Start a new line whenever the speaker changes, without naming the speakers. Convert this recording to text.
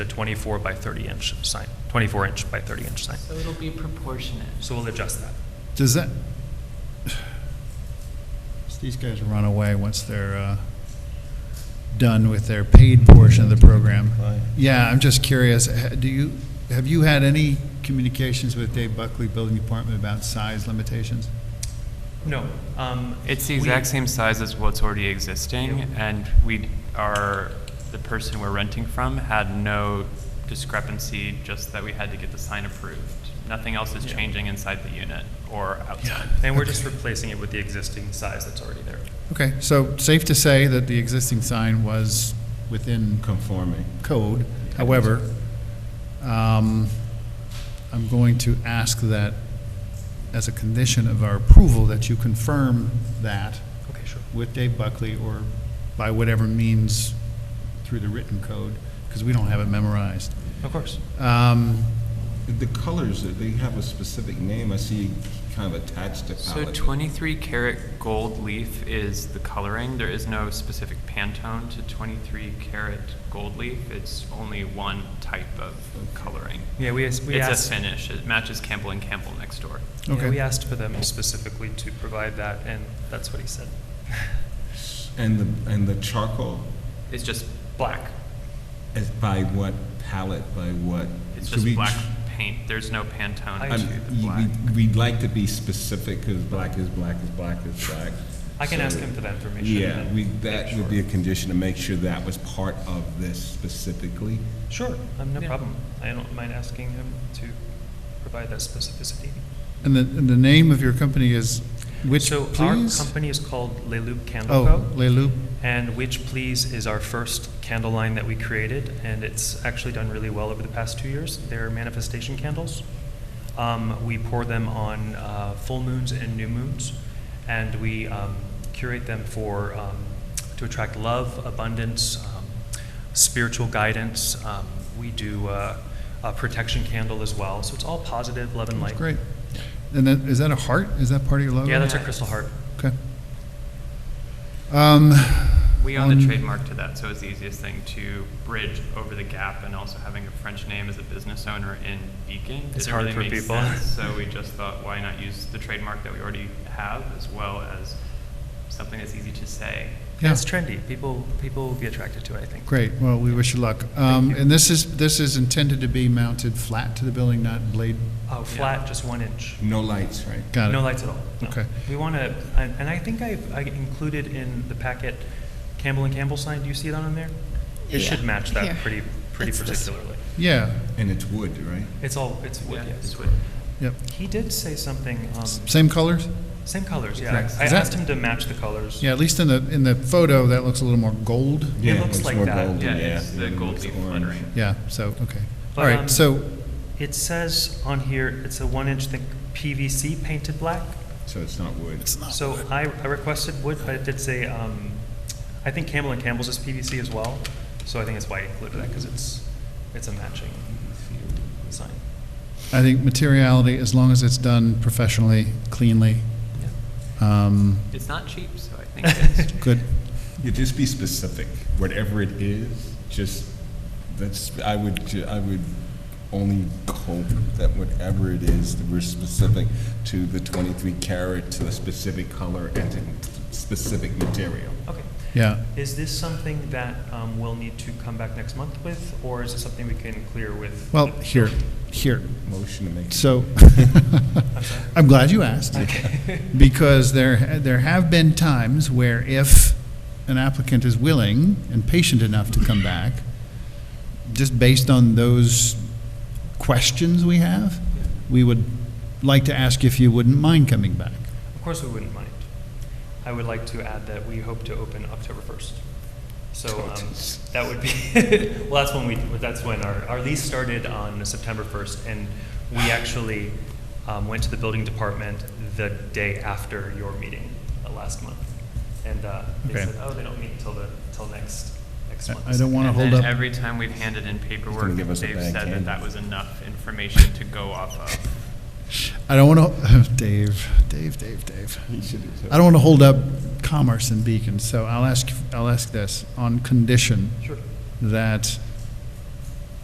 24 by 30 inch sign, 24 inch by 30 inch sign.
So it'll be proportionate.
So we'll adjust that.
Does that, these guys run away once they're uh, done with their paid portion of the program. Yeah, I'm just curious, ha- do you, have you had any communications with Dave Buckley, Building Department, about size limitations?
No. um,
It's the
we-
exact same size as what's already existing, and we are, the person we're renting from had no discrepancy, just that we had to get the sign approved. Nothing else is
Yeah.
changing inside the unit or outside.
And we're just replacing it with the existing size that's already there.
Okay, so safe to say that the existing sign was within
Conforming.
code. However, um, I'm going to ask that as a condition of our approval, that you confirm that
Okay, sure.
with Dave Buckley or by whatever means through the written code, because we don't have it memorized.
Of course.
Um,
The colors, they have a specific name, I see kind of attached to
So
palette.
twenty-three karat gold leaf is the coloring. There is no specific Pantone to twenty-three karat gold leaf. It's only one type of coloring.
Yeah, we, as- we
It's
asked.
a finish. It matches Campbell and Campbell next door.
yeah,
Okay.
we asked for them specifically to provide that, and that's what he said.
And the, and the charcoal
It's just
Black.
is by what palette, by what?
It's
Could
just
we-
black paint. There's no Pantone.
I-
I'm-
to
Actually, the
you-
black.
we- We'd like to be specific, because black is black is black is black.
I can
So-
ask him for that information.
Yeah,
and
we,
make
that
sure.
would be a condition to make sure that was part of this specifically.
Sure, um, no
Yeah.
problem. I don't mind asking him to provide that specificity.
And the, and the name of your company is which,
So
please?
our company is called Le Loup Candle
Oh,
Co.
Le Loup.
And Which Please is our first candle line that we created, and it's actually done really well over the past two years. They're manifestation candles. Um, we pour them on uh, full moons and new moons, and we um, curate them for um, to attract love, abundance, um, spiritual guidance. Um, we do uh, a protection candle as well, so it's all positive, love, and light.
That's great. And then, is that a heart? Is that part of your logo?
Yeah, that's our crystal heart.
Okay. Um,
We
Um,
own the
on-
trademark to that, so it's the easiest thing to bridge over the gap. And also having a French name as a business owner in Beacon,
It's
didn't
hard
really
for
make
people.
sense. So we just thought, why not use the trademark that we already have, as well as something that's easy to say.
Yeah.
It's trendy. People people will be attracted to it. I think.
Great, well, we wish you luck. Um,
you.
And this is, this is intended to be mounted flat to the building, not blade,
Oh, flat, just one inch.
No lights, right?
got it?
No lights at all. No.
Okay.
We want to, and and I think I've I included in the packet Campbell and Campbell sign. Do you see that on there? It should
Yeah,
match that
here.
pretty pretty
It's this.
particularly.
Yeah,
And it's wood, right?
It's all it's wood.
Yeah,
yes.
it's wood.
yep.
He did say something. Um,
Same colors?
same colors. Yeah.
Exact-
I
Is that-
asked him to match the colors.
Yeah, at least in the, in the photo, that looks a little more gold.
It
Yeah,
looks
it's
like
more
that.
golden,
Yeah, it's the
and it
gold
looks
leaf
orange.
lettering.
Yeah, so, okay. All
But,
right,
um,
so,
It says on here it's a one inch thick PVC painted black.
So it's not wood.
So I, I requested wood, but it did say, um, I think Campbell and Campbell's is PVC as well, so I think that's why I included that, because it's, it's a matching sign.
I think materiality, as long as it's done professionally, cleanly, um,
It's not cheap, so I think it's
good.
You just be specific, whatever it is, just, that's, I would, ju- I would only hope that whatever it is, that we're specific to the twenty-three carat, to the specific color, and to specific material.
Okay.
Yeah,
Is this something that, um, we'll need to come back next month with, or is it something we can clear with?
well, here, here,
Motion to make.
So, I'm glad you asked, because there, there have been times where if an applicant is willing and patient enough to come back, just based on those questions we have, we would like to ask if you wouldn't mind coming back.
Of course, we wouldn't mind. I would like to add that we hope to open October first. So, um, that would be, well, that's when we, that's when our, our lease started on September first, and we actually, um, went to the building department the day after your meeting uh, last month. And, uh, they
Okay.
said, oh, they don't meet until the, till next, next
I-
month.
I don't wanna
And
hold
then
up-
every time we've handed in paperwork,
give
they've
us a bad
said
can.
that that was enough information to go off of.
I don't want to, Dave, Dave, Dave, Dave. I don't want to hold up commerce in Beacon, so I'll ask, I'll ask this, on condition
Sure.
that